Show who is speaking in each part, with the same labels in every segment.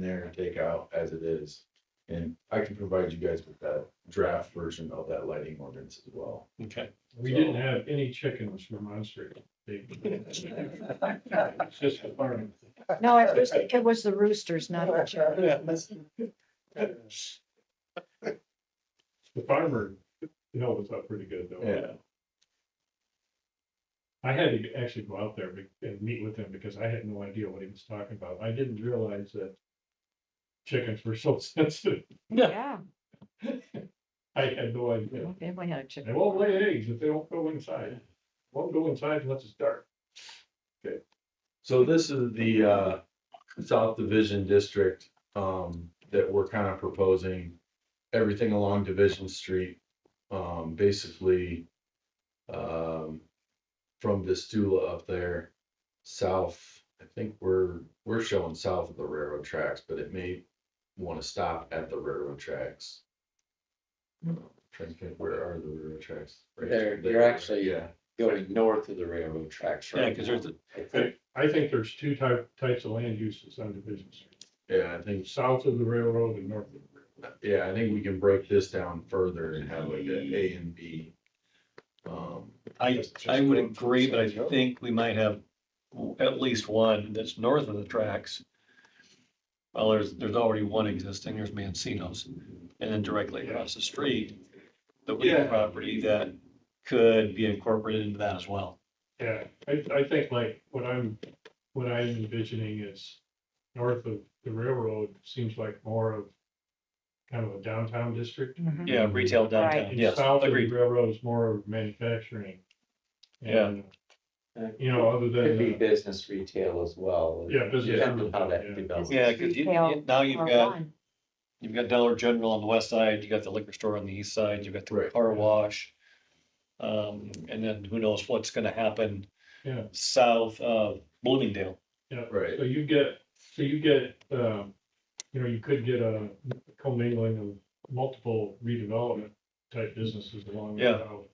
Speaker 1: there and take out as it is. And I can provide you guys with that draft version of that lighting ordinance as well.
Speaker 2: Okay.
Speaker 3: We didn't have any chickens from my street. It's just a farm.
Speaker 4: No, it was, it was the roosters, not the chickens.
Speaker 3: The farmer, you know, was up pretty good though.
Speaker 1: Yeah.
Speaker 3: I had to actually go out there be- and meet with him because I had no idea what he was talking about. I didn't realize that chickens were so sensitive.
Speaker 4: Yeah,
Speaker 3: I had no idea.
Speaker 4: if we had a
Speaker 3: They
Speaker 4: chicken.
Speaker 3: won't lay eggs if they don't go inside. Won't go inside unless it's dark.
Speaker 1: So this is the uh South Division District um that we're kind of proposing. Everything along Division Street, um basically um from Vistula up there, south, I think we're we're showing south of the railroad tracks, but it may want to stop at the railroad tracks. Trying to think, where are the railroad tracks? Right
Speaker 5: Hmm. There, you're
Speaker 1: there,
Speaker 5: actually-
Speaker 1: Yeah,
Speaker 5: going north of the railroad tracks, right?
Speaker 2: Yeah, 'cause there's
Speaker 5: now, I think.
Speaker 3: I I think there's two type, types of land uses on Division Street,
Speaker 1: yeah, I think
Speaker 3: south of the railroad and north of the railroad.
Speaker 1: Yeah, I think we can break this down further and have like an A and B. Um,
Speaker 2: I, I would agree, but I think we might have at least one that's north of the tracks. Well, there's, there's already one existing, there's Mancino's, and then directly across the street, the
Speaker 3: Yeah.
Speaker 2: Wheaton property that could be incorporated into that as well.
Speaker 3: Yeah, I, I think like what I'm, what I'm envisioning is north of the railroad seems like more of kind of a downtown district.
Speaker 4: Mhm.
Speaker 2: Yeah, retail downtown,
Speaker 3: And
Speaker 2: yes,
Speaker 3: South of the
Speaker 2: agreed.
Speaker 3: railroad is more of manufacturing. And,
Speaker 5: Yeah.
Speaker 3: You know, other
Speaker 5: Could be
Speaker 3: than, uh,
Speaker 5: business retail as well.
Speaker 3: yeah, business.
Speaker 5: Depending on how that
Speaker 3: yeah.
Speaker 5: develops.
Speaker 2: Yeah, because you,
Speaker 4: Retail
Speaker 2: you- now you've
Speaker 4: Or
Speaker 2: got,
Speaker 4: one.
Speaker 2: you've got Dollar General on the west side, you got the liquor store on the east side, you've got the
Speaker 1: Right.
Speaker 2: car wash. Um, and then who knows what's gonna happen
Speaker 3: Yeah.
Speaker 2: south of Bloomingdale.
Speaker 1: right,
Speaker 3: So you get, so you get, um, you know, you could get a commingling of multiple redevelopment type businesses along the
Speaker 2: Yeah.
Speaker 3: route.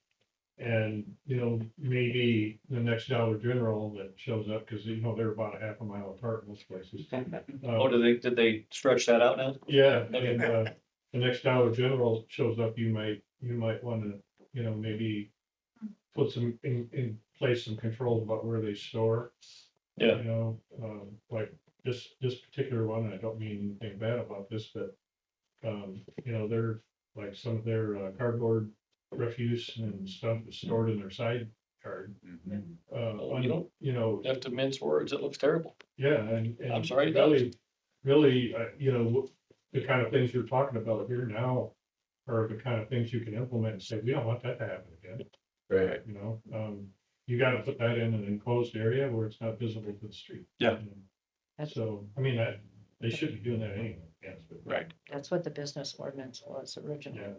Speaker 3: And, you know, maybe the next Dollar General that shows up, because you know, they're about a half a mile apart most places.
Speaker 2: Oh,
Speaker 3: Uh,
Speaker 2: did they, did they stretch that out now?
Speaker 3: Yeah,
Speaker 2: Okay.
Speaker 3: and, uh, the next Dollar General shows up, you might, you might want to, you know, maybe put some, in, in place some controls about where they store.
Speaker 2: Yeah.
Speaker 3: You know, um, like this, this particular one, I don't mean anything bad about this, but, um, you know, they're, like some of their uh, cardboard refuse and stuff is stored in their side yard.
Speaker 2: Mm-hmm.
Speaker 3: Uh,
Speaker 2: you don't-
Speaker 3: you know,
Speaker 2: Have to mince words, it looks terrible.
Speaker 3: yeah, and.
Speaker 2: I'm
Speaker 3: and
Speaker 2: sorry, that was-
Speaker 3: Really, really, uh, you know, the kind of things you're talking about here now are the kind of things you can implement and say, we don't want that to happen again,
Speaker 1: right,
Speaker 3: you know? Um, you gotta put that in an enclosed area where it's not visible to the street.
Speaker 2: Yeah.
Speaker 4: That's-
Speaker 3: So, I mean, I, they should be doing that anyway, yes, but.
Speaker 2: Right.
Speaker 4: That's what the business ordinance was originally.
Speaker 3: Yeah,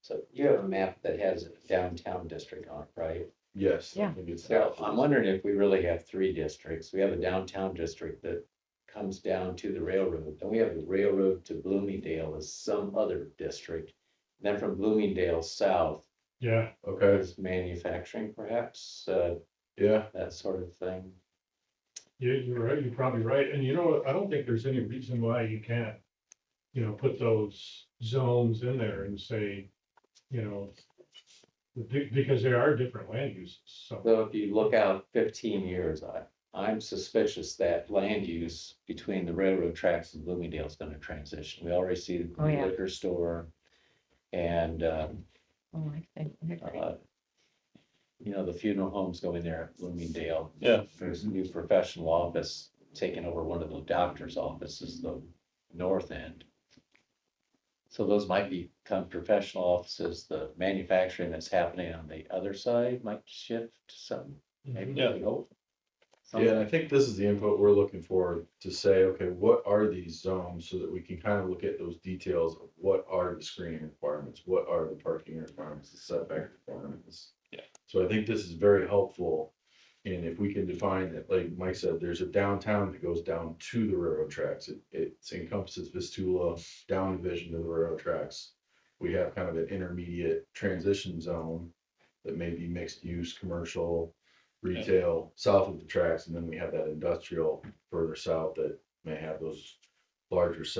Speaker 5: So you have a map that has a downtown district on it, right?
Speaker 1: yes. I
Speaker 4: Yeah.
Speaker 1: think it's
Speaker 5: So
Speaker 1: south.
Speaker 5: I'm wondering if we really have three districts. We have a downtown district that comes down to the railroad. Then we have the railroad to Bloomingdale as some other district. Then from Bloomingdale south
Speaker 3: yeah,
Speaker 1: Okay,
Speaker 5: is manufacturing perhaps, uh,
Speaker 1: yeah,
Speaker 5: that sort of thing.
Speaker 3: you, you're right, you're probably right, and you know, what? I don't think there's any reason why you can't, you know, put those zones in there and say, you know, be- because there are different land uses, so.
Speaker 5: Though if you look out fifteen years, I, I'm suspicious that land use between the railroad tracks and Bloomingdale is gonna transition. We already see the
Speaker 4: Oh, yeah.
Speaker 5: liquor store. And, um,
Speaker 4: Oh, I think, I agree.
Speaker 5: uh, you know, the funeral homes going there at Bloomingdale.
Speaker 2: Yeah.
Speaker 5: There's a new professional office taking over one of the doctor's offices, the north end. So those might become professional offices. The manufacturing that's happening on the other side might shift some, maybe.
Speaker 2: Yeah.
Speaker 5: we hope.
Speaker 1: yeah, and I think this is the input we're looking for to say, okay, what are these zones? So that we can kind of look at those details of what are the screening requirements, what are the parking requirements, the setback requirements.
Speaker 2: Yeah.
Speaker 1: So I think this is very helpful. And if we can define that, like Mike said, there's a downtown that goes down to the railroad tracks. It, it encompasses Vistula, down division to the railroad tracks. We have kind of an intermediate transition zone that may be mixed use, commercial, retail, south of the tracks. And then we have that industrial further south that may have those larger